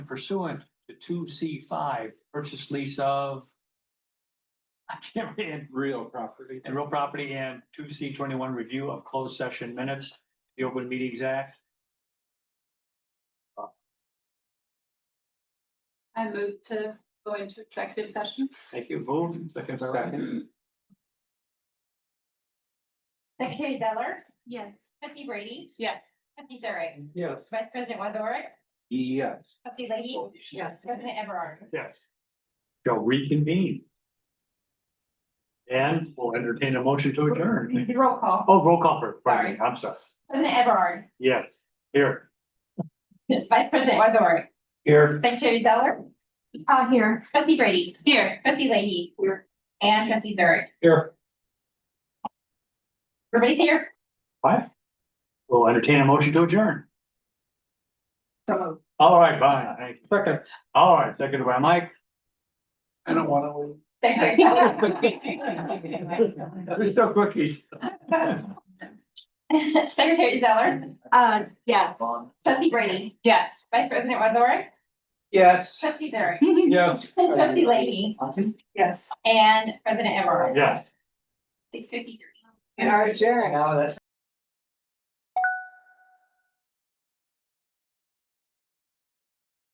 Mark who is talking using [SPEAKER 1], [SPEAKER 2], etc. [SPEAKER 1] pursuant to two C five, purchase lease of. I can't read,
[SPEAKER 2] real property.
[SPEAKER 1] and real property and two C twenty-one review of closed session minutes, the Open Meetings Act.
[SPEAKER 3] I move to go into executive session.
[SPEAKER 1] Thank you, move, second, second.
[SPEAKER 4] Secretary Zeller,
[SPEAKER 3] Yes.
[SPEAKER 4] trustee Brady,
[SPEAKER 3] Yes.
[SPEAKER 4] trustee Zurich,
[SPEAKER 2] Yes.
[SPEAKER 4] vice president Wazorek,
[SPEAKER 2] Yes.
[SPEAKER 4] trustee Lahey,
[SPEAKER 2] Yes.
[SPEAKER 4] president Everard.
[SPEAKER 1] Yes. Shall reconvene. And we'll entertain a motion to adjourn.
[SPEAKER 4] Roll call,
[SPEAKER 1] Oh, roll call for, pardon me, I'm sorry.
[SPEAKER 4] president Everard,
[SPEAKER 1] Yes, here.
[SPEAKER 4] vice president Wazorek,
[SPEAKER 1] Here.
[SPEAKER 4] secretary Zeller. Uh, here. Trustee Brady. Here. Trustee Lahey. Here. And trustee Zurich.
[SPEAKER 1] Here.
[SPEAKER 4] Everybody's here.
[SPEAKER 1] What? We'll entertain a motion to adjourn. All right, bye, thank you.
[SPEAKER 2] Second,
[SPEAKER 1] All right, seconded by Mike.
[SPEAKER 2] I don't wanna leave.
[SPEAKER 4] Secretary Zeller.
[SPEAKER 1] There's still cookies.
[SPEAKER 4] Secretary Zeller,
[SPEAKER 3] Uh, yeah.
[SPEAKER 4] trustee Brady,
[SPEAKER 3] Yes.
[SPEAKER 4] vice president Wazorek,
[SPEAKER 2] Yes.
[SPEAKER 4] trustee Zurich,
[SPEAKER 2] Yes.
[SPEAKER 4] trustee Lahey,
[SPEAKER 3] Yes.
[SPEAKER 4] and president Everard.
[SPEAKER 1] Yes.
[SPEAKER 4] Six fifty-three.
[SPEAKER 3] And our adjourn.
[SPEAKER 2] Now that's.